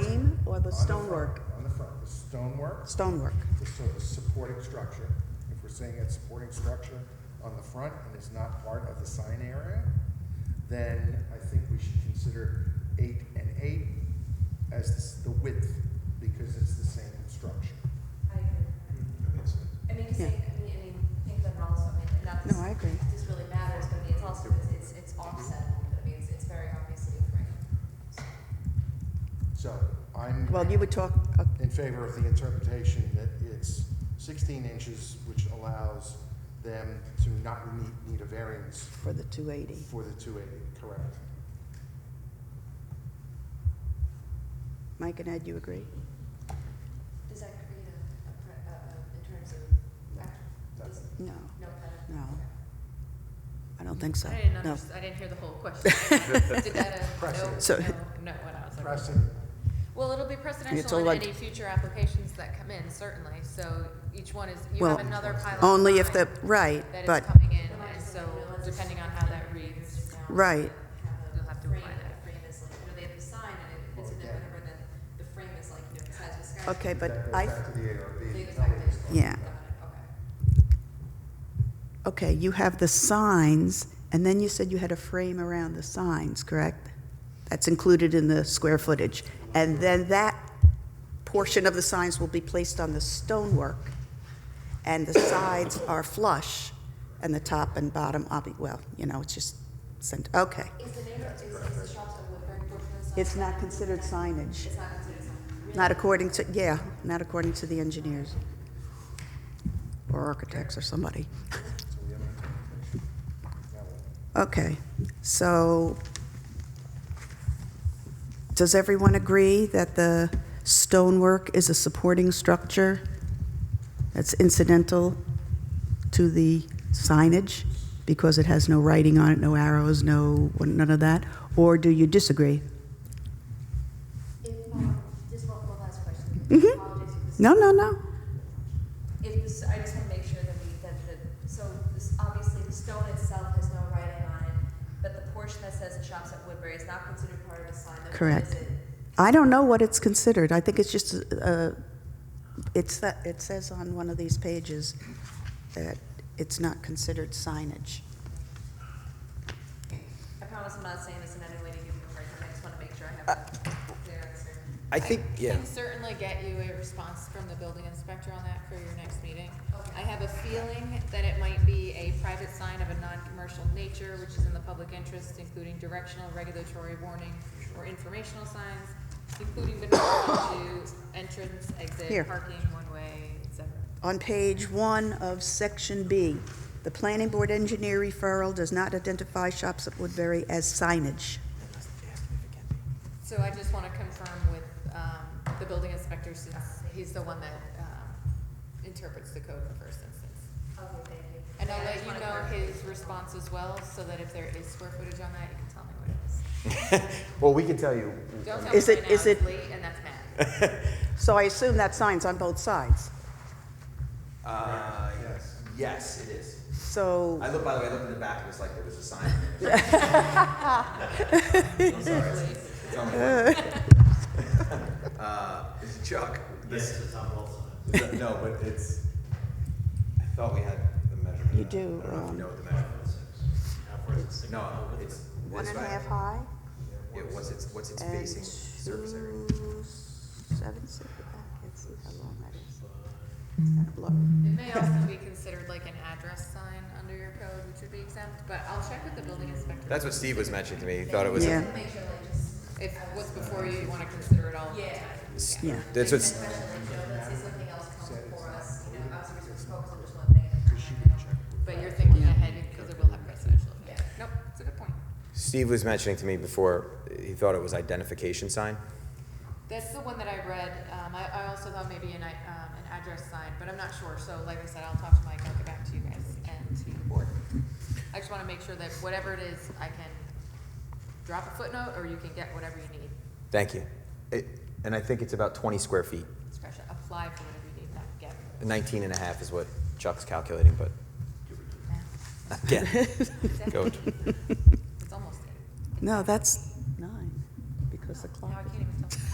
or the on front- stonework, On the front, the stonework, stonework. the so- the supporting structure. If we're saying it's supporting structure on the front and it's not part of the sign area, then I think we should consider eight and eight as the s- the width, because it's the same structure. I agree. That makes sense. I mean, 'cause Yeah. they, I mean, I mean, think about it also, I mean, and not No, this, I agree. this really matters, but I mean, it's also, it's, it's, it's offset, but I mean, it's, it's very obviously framed. So, So I'm Well, you would talk, uh, in favor of the interpretation that it's 16 inches, which allows them to not need, need a variance for the 280. for the 280, correct? Mike and Ed, you agree? Does that create a, a, pre- a, a, in terms of, act- That's- does- No, no, kind of- No. okay. I don't think so. I didn't No. understand, I didn't hear the whole question. Did that, uh, no, Precedent. So- no, no, when I was like. Pressing, Well, it'll be It's all precedential in like- any future applications that come in, certainly, so each one is, you Well, have another pilot. Only if the, design right, That but, is coming in, and so depending on how that reads, right, Have a You'll have to frame, apply that. the frame is like, you know, they have the sign and it, it's in there Okay. whenever the, the frame is like, you know, size of sky. okay, but that goes I, back to the So you ARB. go Tell me back what's to- going Yeah. Got it, Okay. okay, you have the signs, and then you said you had a frame around the signs, correct? That's included in the square footage. And then that portion of the signs will be placed on the stonework, and the sides are flush, and the top and bottom, obvi- well, you know, it's just, cent- okay. Is the neighbor, is, is the shops on Woodbury portion of the sign? It's not considered signage. It's not considered sign. Really? Not according to, yeah, not according to the engineers or architects or somebody. on. So we have an interpretation. Now what? Okay, so does everyone agree that the stonework is a supporting structure that's incidental to the signage because it has no writing on it, no arrows, no, none of that? Or do you disagree? If, um, just one, one last question. Mhm. Apologies if this- No, no, no. If this, I just wanna make sure that we, that the, so this, obviously the stone itself has no writing on it, but the portion that says the shops at Woodbury is not considered part of the sign, though, Correct. is it? I don't know what it's considered. I think it's just, uh, it's that, it says on one of these pages that it's not considered signage. I promise I'm not saying this in any way to give you a hard time, I just wanna make sure I have Uh, a clear answer. I think, yeah. Can certainly get you a response from the building inspector on that for your next meeting. Okay. I have a feeling that it might be a private sign of a non-commercial nature, which is in the public interest, including directional, regulatory warning, or informational signs, including but not limited to entrance, Here. exit, parking, one-way, et cetera. On page one of section B, the planning board engineer referral does not identify shops at Woodbury as signage. So I just want to confirm with um, the building inspector, since he's the one that um, interprets the code in the first instance. Okay, thank you. And I'll Yeah, I let just you wanna know clarify. his response as well, so that if there is square footage on that, you can tell me what it is. Well, we can tell you. Don't tell me Is it- right now, is it's it- late, and that's Matt. So I assume that sign's on both sides. Uh, yes, it is. So, I looked, by the way, I looked in the back, it was like there was a sign. I'm sorry. it's- it's on the front. Uh, Chuck, this, Yes, it's on both sides. is that- no, but it's, I thought we had the measurement. You of that. do, I don't know if um, you know what the measurement is. Halfway to six. No, it's. one it's and a fine. half high Yeah, what's its, what's its and facing two, surface area? seven, six, I can't see how long that is. It's kind of blurry. It may also be considered like an address sign under your code, which would be exempt, but I'll check with the building inspector. That's what Steve was mentioning to me, he thought it was, Yeah. a- Make sure like just. If what's before you, you want to consider it all. Yeah. Yeah. that's what's, Especially, you know, let's say something else comes for us, you know, obviously we're just focused on just one thing. But you're thinking ahead because it will have presidential effect. Nope, it's a good point. Steve was mentioning to me before, he thought it was identification sign. That's the one that I read. Um, I, I also thought maybe an, i- um, an address sign, but I'm not sure. So like I said, I'll talk to Mike, I'll get back to you guys and to the board. I just wanna make sure that whatever it is, I can drop a footnote or you can get whatever you need. Thank you. It- And I think it's about 20 square feet. Scratch that, apply for whatever you need, not get. 19 and a half is what Chuck's calculating, but again, goat. It's almost it. No, that's nine, because the clock. Now I can't even tell.